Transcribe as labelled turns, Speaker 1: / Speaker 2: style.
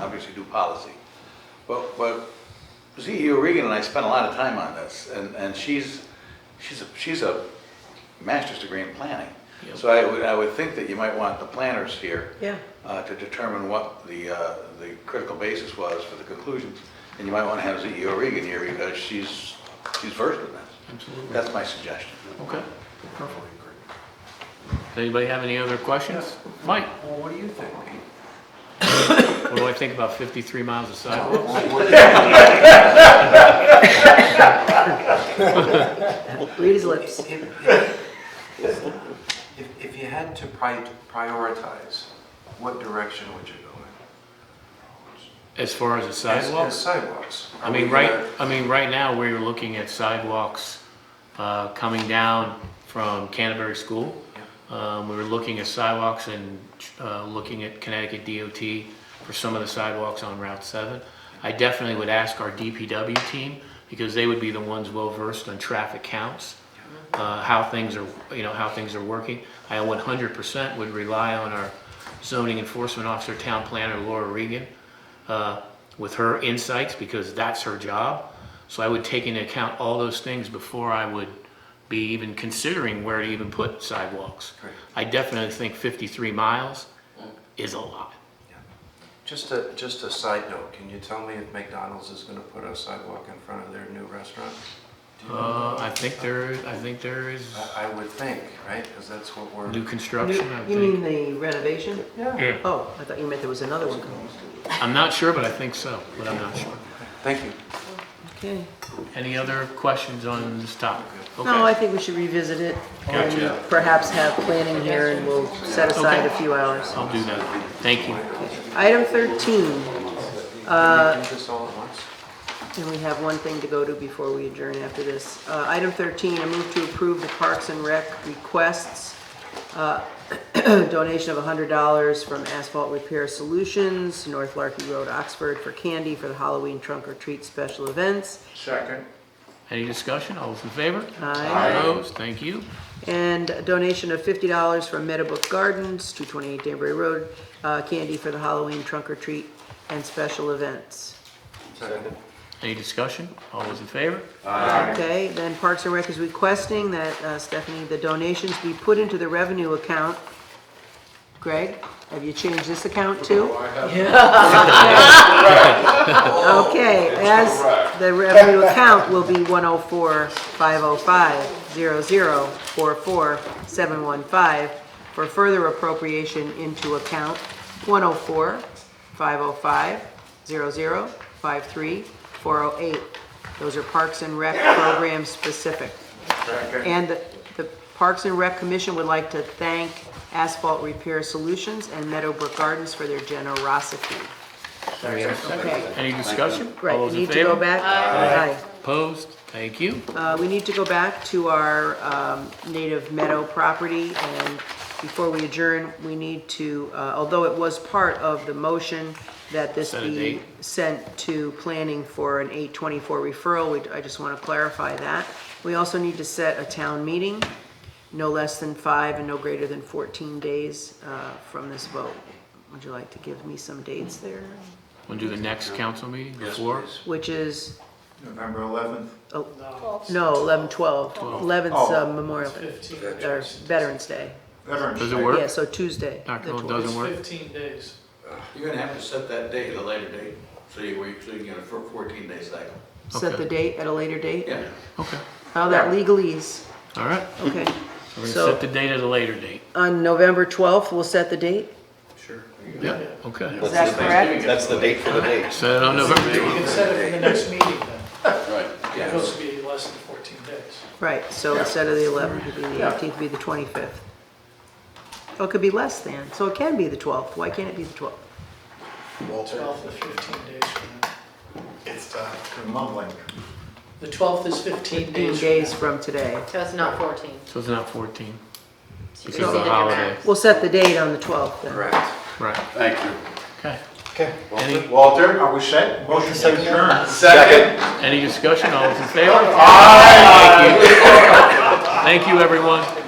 Speaker 1: obviously do policy. But, but CEO Regan and I spent a lot of time on this, and, and she's, she's, a she's a master's degree in planning.
Speaker 2: Yep.
Speaker 1: So I would, I would think that you might want the planners here
Speaker 3: Yeah.
Speaker 1: uh, to determine what the, uh, the critical basis was for the conclusions. And you might want to have CEO Regan here because she's, she's versed in this.
Speaker 2: Absolutely.
Speaker 1: That's my suggestion.
Speaker 2: Okay, perfect. Does anybody have any other questions? Mike,
Speaker 4: Well, what do you think?
Speaker 2: what do I think about 53 miles of sidewalks?
Speaker 3: Read his lips.
Speaker 4: If- if- If, if you had to pri- prioritize, what direction would you go in?
Speaker 2: As far as the
Speaker 4: As- as
Speaker 2: sidewalks?
Speaker 4: Sidewalks.
Speaker 2: I
Speaker 4: Are
Speaker 2: mean,
Speaker 4: we
Speaker 2: right,
Speaker 4: gonna-
Speaker 2: I mean, right now, we're looking at sidewalks uh, coming down from Canterbury School. Um, We were looking at sidewalks and uh, looking at Connecticut DOT for some of the sidewalks on Route 7. I definitely would ask our DPW team, because they would be the ones well-versed on traffic counts, uh, how things are, you know, how things are working. I 100% would rely on our zoning enforcement officer, town planner Laura Regan, uh, with her insights because that's her job. So I would take into account all those things before I would be even considering where to even put sidewalks.
Speaker 4: Correct.
Speaker 2: I definitely think 53 miles is a lot.
Speaker 4: Just a, just a side note, can you tell me if McDonald's is gonna put a sidewalk in front of their new restaurant? Do you know?
Speaker 2: Uh, I think there, I think there is
Speaker 4: I, I would think, right, because that's what we're.
Speaker 2: new construction, I
Speaker 3: You
Speaker 2: think.
Speaker 3: mean the renovation?
Speaker 2: Yeah.
Speaker 3: Oh, I thought you meant there was another one coming.
Speaker 2: I'm not sure, but I think so, but I'm not sure.
Speaker 4: Thank you.
Speaker 3: Okay.
Speaker 2: Any other questions on this topic?
Speaker 3: No, I
Speaker 2: Okay.
Speaker 3: think we should revisit it
Speaker 2: Gotcha.
Speaker 3: and perhaps have planning here and we'll set aside a few hours.
Speaker 2: I'll do that. Thank you.
Speaker 3: Item 13,
Speaker 4: Can you do this all at once?
Speaker 3: and we have one thing to go to before we adjourn after this. Uh, Item 13, I move to approve the Parks and Rec requests, uh, donation of $100 from Asphalt Repair Solutions, North Larky Road, Oxford, for candy for the Halloween trunk or treat special events.
Speaker 4: Second.
Speaker 2: Any discussion? All those in favor?
Speaker 3: Aye.
Speaker 2: Opposed? Thank you.
Speaker 3: And a donation of fifty dollars from Meadowbrook Gardens, two twenty-eight Danbury Road, uh, candy for the Halloween trunk or treat and special events.
Speaker 4: Second.
Speaker 2: Any discussion? All those in favor?
Speaker 3: Okay, then Parks and Rec is requesting that, uh, Stephanie, the donations be put into the revenue account. Greg, have you changed this account too? Yeah. Okay, as the revenue account will be one oh four five oh five zero zero four four seven one five for further appropriation into account one oh four five oh five zero zero five three four oh eight. Those are Parks and Rec program specific. And the- the Parks and Rec Commission would like to thank Asphalt Repair Solutions and Meadowbrook Gardens for their generosity.
Speaker 2: There we have it.
Speaker 3: Okay,
Speaker 2: Any discussion?
Speaker 3: right,
Speaker 2: All
Speaker 3: you
Speaker 2: those in
Speaker 3: need to go
Speaker 2: favor?
Speaker 3: back. Aye.
Speaker 2: Opposed? Thank you.
Speaker 3: Uh, we need to go back to our, um, native meadow property, and before we adjourn, we need to, uh, although it was part of the motion that this
Speaker 2: Set a
Speaker 3: be
Speaker 2: date.
Speaker 3: sent to planning for an eight twenty-four referral, we, I just wanna clarify that. We also need to set a town meeting, no less than five and no greater than fourteen days, uh, from this vote. Would you like to give me some dates there?
Speaker 2: Want to do the next council meeting before?
Speaker 3: Which is,
Speaker 5: November 11th.
Speaker 3: oh, no, eleven, twelve, eleventh's uh, Memorial Day. or Veterans Day.
Speaker 5: Veterans
Speaker 2: Does it
Speaker 5: Day.
Speaker 2: work?
Speaker 3: Yeah, so Tuesday.
Speaker 2: Dr.
Speaker 3: the
Speaker 2: Hill
Speaker 3: 12th.
Speaker 2: doesn't work?
Speaker 6: Fifteen days.
Speaker 1: You're gonna have to set that date at a later date, so you, where you- so you can get a four- fourteen day cycle.
Speaker 3: Set the date at a later date?
Speaker 1: Yeah.
Speaker 2: Okay,
Speaker 3: How that legalese,
Speaker 2: all right. We're
Speaker 3: okay.
Speaker 2: going to
Speaker 3: So-
Speaker 2: set the date at a later date.
Speaker 3: On November 12th, we'll set the date?
Speaker 2: Yeah, okay.
Speaker 3: Is that correct?
Speaker 1: That's the date for the date.
Speaker 2: Set it on November.
Speaker 6: You can set it for the next meeting then.
Speaker 1: Right.
Speaker 6: It's supposed to be less than fourteen days.
Speaker 3: Right, so instead of the 11th, it'd be the 18th, it'd be the 25th. Oh, it could be less than, so it can be the 12th. Why can't it be the 12th?
Speaker 6: Twelve to fifteen days from now.
Speaker 5: It's uh, mumbling.
Speaker 6: The twelfth is fifteen
Speaker 3: 15
Speaker 6: days. from
Speaker 3: days from today.
Speaker 7: So it's not 14.
Speaker 2: So it's not 14. Because
Speaker 7: So you
Speaker 2: of
Speaker 7: exceeded
Speaker 2: the
Speaker 7: your
Speaker 2: holiday.
Speaker 7: max.
Speaker 3: We'll set the date on the 12th then.
Speaker 4: Correct.
Speaker 2: Right,
Speaker 1: Thank you.
Speaker 2: okay.
Speaker 5: Okay.
Speaker 2: Any,
Speaker 5: Walter, are we set? Motion to adjourn.
Speaker 1: Second.
Speaker 2: any discussion? All those in favor? Thank you. Thank you, everyone.